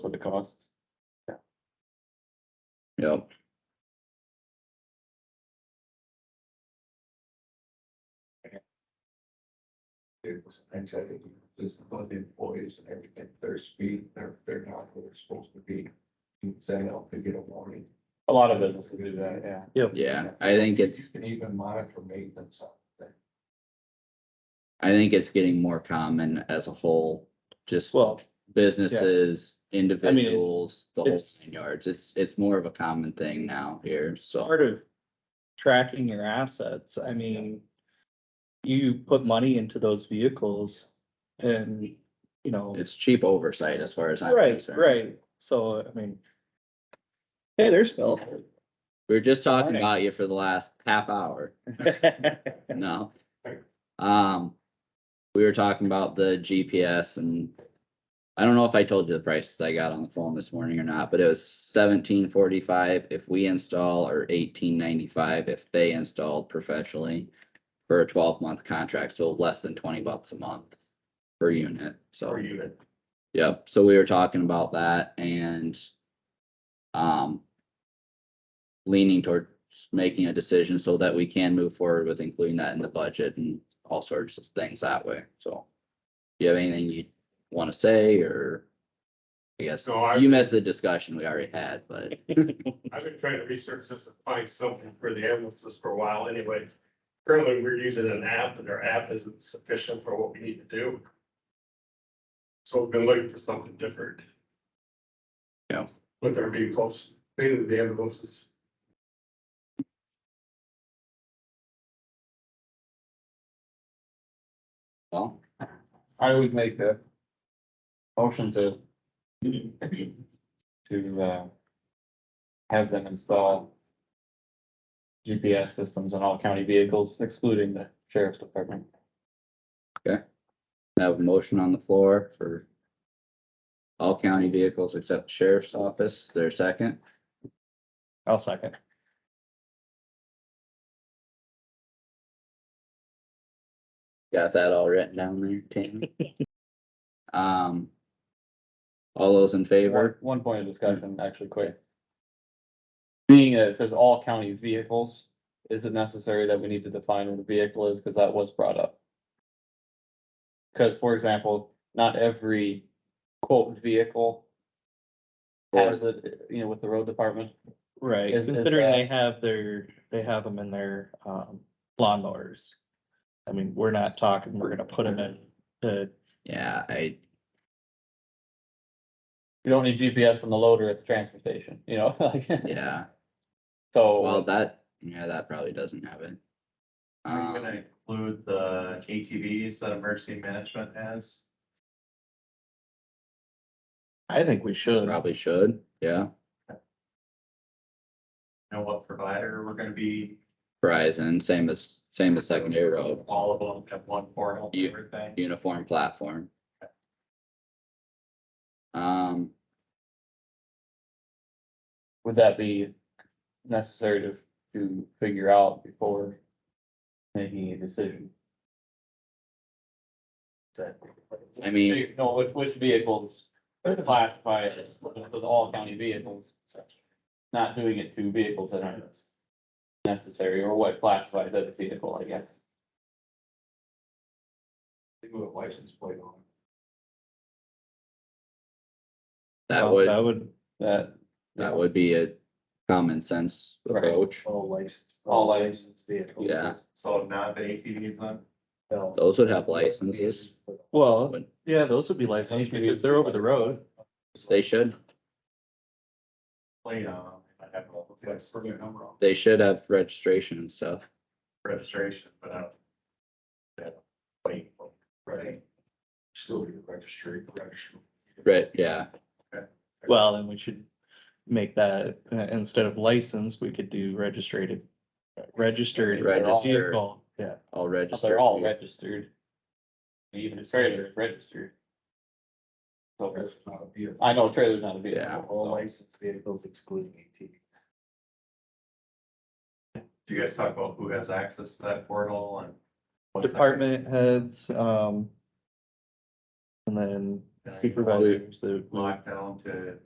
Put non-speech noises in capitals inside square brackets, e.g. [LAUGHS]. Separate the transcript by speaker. Speaker 1: costs.
Speaker 2: Yeah.
Speaker 3: It's, I tell you, this about the employees and everything, their speed, they're, they're not where they're supposed to be. You can Say, I'll get a warning.
Speaker 1: A lot of businesses do that, yeah.
Speaker 2: Yeah, I think it's,
Speaker 3: You can even monitor maintenance on that.
Speaker 2: I think it's getting more common as a whole, just
Speaker 1: Well,
Speaker 2: businesses, individuals, the whole
Speaker 1: it's-
Speaker 2: nine yards. It's, it's more of a common thing now here, so.
Speaker 4: part of tracking your assets, I mean. You put money into those vehicles and, you know,
Speaker 2: It's cheap oversight as far as I'm
Speaker 4: right,
Speaker 2: concerned.
Speaker 4: right, so, I mean. Hey, there's [LAUGHS] Phil.
Speaker 2: We were just talking
Speaker 4: Morning.
Speaker 2: about you for the last half hour, [LAUGHS] no? Um, we were talking about the GPS and I don't know if I told you the prices I got on the phone this morning or not, but it was seventeen forty-five if we install or eighteen ninety-five if they installed professionally for a twelve-month contract, so less than twenty bucks a month per unit, so.
Speaker 3: For you.
Speaker 2: Yep, so we were talking about that and um leaning towards making a decision so that we can move forward with including that in the budget and all sorts of things that way, so. Do you have anything you wanna say or? I guess
Speaker 5: No, I-
Speaker 2: you missed the discussion we already had, but
Speaker 5: I've been trying to research this and find something for the ambulances for a while anyway. Currently, we're using an app and our app isn't sufficient for what we need to do. So we've been looking for something different.
Speaker 2: Yeah.
Speaker 5: With our vehicles, mainly the ambulances.
Speaker 2: well,
Speaker 1: I would make the motion to to uh have them install GPS systems on all county vehicles excluding the sheriff's department.
Speaker 2: I have a motion on the floor for all county vehicles except sheriff's office, their second.
Speaker 4: I'll second.
Speaker 2: Got that all written down there, Tammy? Um. All those in
Speaker 1: One
Speaker 2: favor?
Speaker 1: one point of discussion,
Speaker 4: Mm.
Speaker 1: actually quick. Being that it says all county vehicles, is it necessary that we need to define what a vehicle is? Cause that was brought up. Cause for example, not every quote vehicle has it, you know, with the road department.
Speaker 4: Right,
Speaker 1: Is- is
Speaker 4: considering
Speaker 1: that-
Speaker 4: they have their, they have them in their, um, lawnmowers. I mean, we're not talking, we're gonna put them in the
Speaker 2: Yeah, I,
Speaker 1: You don't need GPS on the loader at the transfer station, you know, [LAUGHS] like,
Speaker 2: yeah, well,
Speaker 1: so,
Speaker 2: that, yeah, that probably doesn't have it.
Speaker 6: Are you
Speaker 2: Um,
Speaker 6: gonna include the ATVs that emergency management has?
Speaker 4: I think we should.
Speaker 2: probably should, yeah,
Speaker 6: Know what provider we're gonna be,
Speaker 2: Verizon, same as, same as secondary road,
Speaker 6: all of them at one portal, and
Speaker 2: You-
Speaker 6: everything?
Speaker 2: uniform platform. Um,
Speaker 1: would that be necessary to, to figure out before making a decision?
Speaker 2: I mean,
Speaker 1: Ve- No, which, which vehicles classify it with all county vehicles, not doing it to vehicles that aren't necessary, or what classifies as a vehicle, I guess.
Speaker 3: They move a license plate on.
Speaker 2: that
Speaker 4: Well,
Speaker 2: would,
Speaker 4: That would,
Speaker 1: That,
Speaker 2: that would be a common sense
Speaker 1: Right.
Speaker 2: approach,
Speaker 6: All licensed.
Speaker 1: all licensed
Speaker 6: vehicles.
Speaker 2: yeah,
Speaker 6: So not the ATVs then?
Speaker 2: those would have licenses,
Speaker 4: well,
Speaker 2: Would-
Speaker 4: yeah, those would be licensed because they're over the road.
Speaker 2: they should.
Speaker 6: Play on, them, I have a little
Speaker 3: That's
Speaker 6: place
Speaker 3: for their number on.
Speaker 2: They should have registration and stuff.
Speaker 6: for registration, but I. Wait,
Speaker 3: Right. Still your registry, register.
Speaker 2: Right, yeah,
Speaker 4: Well, then we should make that, uh, instead of license, we could do registered. Registered
Speaker 2: Right, just your-
Speaker 4: vehicle, yeah,
Speaker 2: all registered.
Speaker 1: they're all registered. Even the trailer is registered. So,
Speaker 3: That's not a vehicle.
Speaker 1: I know a trailer's not a vehicle.
Speaker 2: Yeah.
Speaker 1: so-
Speaker 6: licensed vehicles excluding ATVs. Do you guys talk about who has access to that portal and? what's that-
Speaker 4: department heads, um. And then supervisors that
Speaker 6: Lockdown to